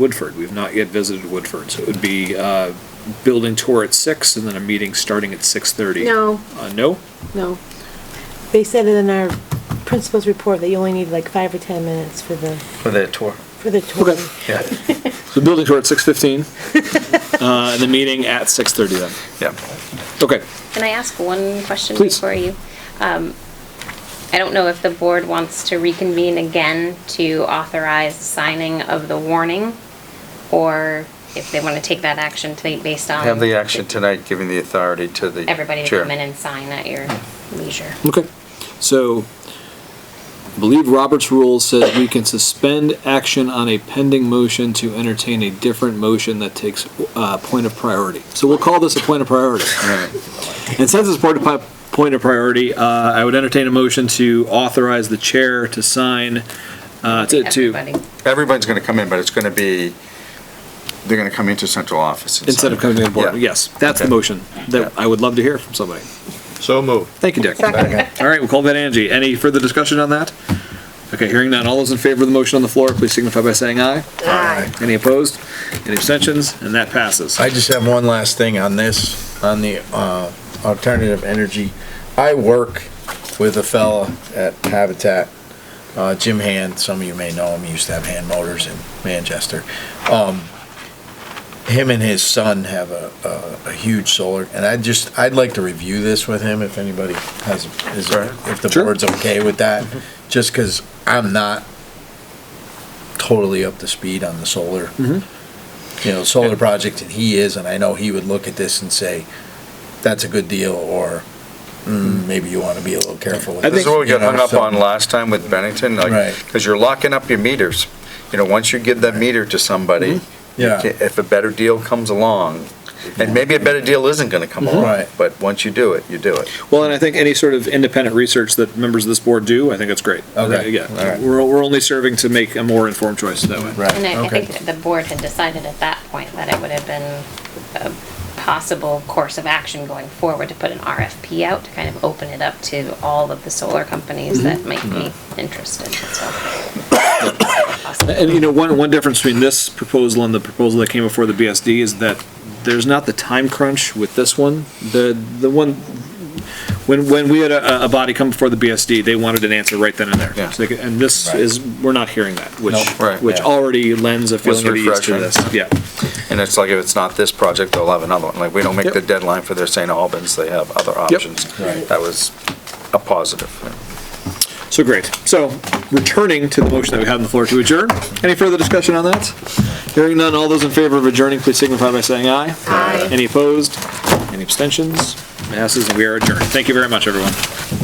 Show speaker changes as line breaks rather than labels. Woodford. We've not yet visited Woodford, so it would be uh, building tour at six and then a meeting starting at six thirty.
No.
Uh, no?
No. They said it in our principal's report that you only need like five or 10 minutes for the,
for the tour.
for the tour.
Okay.
Yeah,
So building tour at six fifteen, uh, and the meeting at six thirty then.
yeah.
Okay.
Can I ask one question
Please.
before you? Um, I don't know if the board wants to reconvene again to authorize signing of the warning, or if they want to take that action to, based on.
Have the action tonight, giving the authority to the chair.
Um, Everybody to come in and sign at your leisure.
Okay, so I believe Robert's rule says we can suspend action on a pending motion to entertain a different motion that takes uh, point of priority. So we'll call this a point of priority. And since it's part of pi- point of priority, uh, I would entertain a motion to authorize the chair to sign, uh, to, to,
Everybody.
Everybody's going to come in, but it's going to be, they're going to come into central office. and
instead
sign.
of coming to the board.
Yeah.
Yes, that's the
Okay.
motion that I would love to hear from somebody.
So moved.
Thank you, Dick. All right, we'll call that Angie. Any further discussion on that? Okay, hearing none. All those in favor of the motion on the floor, please signify by saying aye.
Aye.
Any opposed? Any abstentions? And that passes.
I just have one last thing on this, on the uh, alternative energy. I work with a fella at Habitat, uh, Jim Hand, some of you may know him, he used to have Hand Motors in Manchester. Um, Him and his son have a, a- a huge solar, and I just, I'd like to review this with him if anybody has, is, if the
Sure.
board's okay with that, just because I'm not totally up to speed on the solar you know, solar project and he is, and I know he would look at this and say, that's a good deal, or mm, maybe you want to be a little careful with
I
this.
This is what we
you
got hung
know,
up
so-
on last time with Bennington, like,
Right.
because you're locking up your meters. You know, once you give that meter to somebody, you
Mm-hmm. Yeah.
ca- if a better deal comes along, and maybe a better deal isn't going to come along,
Mm-hmm. Right.
but once you do it, you do it.
Well, and I think any sort of independent research that members of this board do, I think that's great.
Okay. All
Yeah,
right.
we're, we're only serving to make a more informed choice that way.
Right,
And I, I
okay.
think the board had decided at that point that it would have been a possible course of action going forward to put an RFP out, to kind of open it up to all of the solar
Mm-hmm.
companies that might be interested, so.
And you know, one, one difference between this proposal and the proposal that came before the BSD is that there's not the time crunch with this one. The, the one, when, when we had a, a body come before the BSD, they wanted an answer right then and there.
Yeah.
So they could- And this
Right.
is, we're not hearing that, which,
Nope.
Right.
which
Yeah.
already lends a feeling of ease to this.
refreshing.
Yeah.
And it's like, if it's not this project, they'll have another one. Like, we don't make
Yep.
the deadline for their St. Albans, they have other options.
Right.
That was a positive.
So great. So returning to the motion that we had on the floor to adjourn. Any further discussion on that? Hearing none, all those in favor of adjourning, please signify by saying aye.
Aye.
Any opposed? Any abstentions? Passes, and we are adjourned. Thank you very much, everyone.